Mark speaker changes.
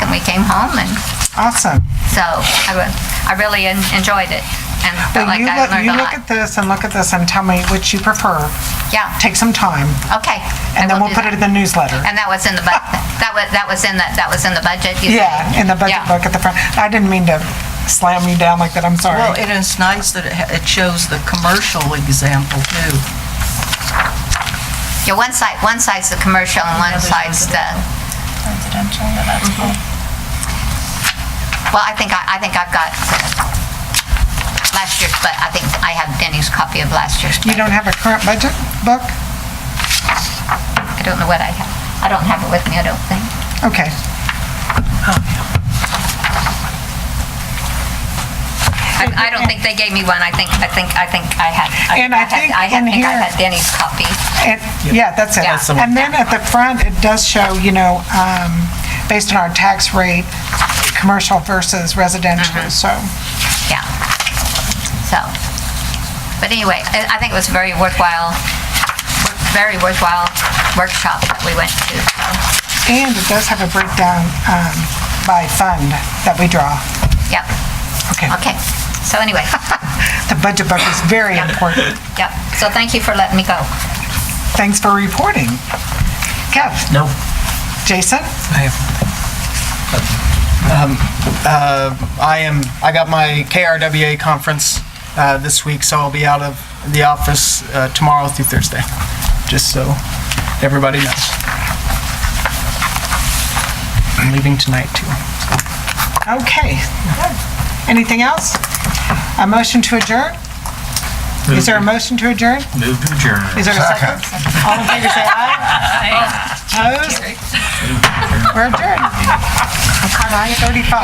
Speaker 1: we came home and
Speaker 2: Awesome.
Speaker 1: so I, re- I really en- enjoyed it and felt
Speaker 2: Well,
Speaker 1: like
Speaker 2: you
Speaker 1: I
Speaker 2: look,
Speaker 1: learned
Speaker 2: you
Speaker 1: a
Speaker 2: look
Speaker 1: lot.
Speaker 2: at this and look at this and tell me which you prefer.
Speaker 1: Yeah,
Speaker 2: Take some time
Speaker 1: okay. I
Speaker 2: and then
Speaker 1: will
Speaker 2: we'll
Speaker 1: do
Speaker 2: put
Speaker 1: that.
Speaker 2: it in the newsletter.
Speaker 1: And that was in the, bu- that was, that was in the, that was in the budget? you said?
Speaker 2: Yeah, in the budget
Speaker 1: Yeah.
Speaker 2: book at the front. I didn't mean to slam you down like that, I'm sorry.
Speaker 3: Well, it is nice that it ha- it shows the commercial example too.
Speaker 1: Yeah, one side, one side's the commercial and one side's the, Mm-hmm.
Speaker 4: residential, but that's cool.
Speaker 1: well, I think, I I think I've got last year's, but I think I have Denny's copy of last year's.
Speaker 2: You don't have a current budget book?
Speaker 1: I don't know what I have. I don't have it with me, I don't think.
Speaker 2: Okay.
Speaker 1: I I don't think they gave me one. I think, I think, I think I had.
Speaker 2: And I
Speaker 1: had-
Speaker 2: think
Speaker 1: I had-
Speaker 2: in
Speaker 1: think I
Speaker 2: here-
Speaker 1: had Denny's copy.
Speaker 2: And, yeah, that's it.
Speaker 1: Yeah. That's the one.
Speaker 2: And then at the front, it does show, you know, um, based on our tax rate, commercial versus
Speaker 1: Uh-huh.
Speaker 2: residential, so.
Speaker 1: Yeah. So, but anyway, I I think it was a very worthwhile, very worthwhile workshop that we went to. so,
Speaker 2: And it does have a breakdown um, by fund that we draw.
Speaker 1: Yep.
Speaker 2: Okay.
Speaker 1: Okay. So anyway,
Speaker 2: The budget book is very
Speaker 1: Yeah.
Speaker 2: important.
Speaker 1: yep. So thank you for letting me go.
Speaker 2: Thanks for reporting. Kev,
Speaker 5: No.
Speaker 2: Jason,
Speaker 5: I have. Um, uh, I am. I got my KRWA conference uh, this week, so I'll be out of the office uh, tomorrow through Thursday. Just so everybody knows. I'm leaving tonight too.
Speaker 2: okay. Anything else? A motion to adjourn? Is there a motion to adjourn?
Speaker 6: Move to adjourn.
Speaker 2: Is there a second? All in favor, say aye. Opposed? We're adjourned. 35.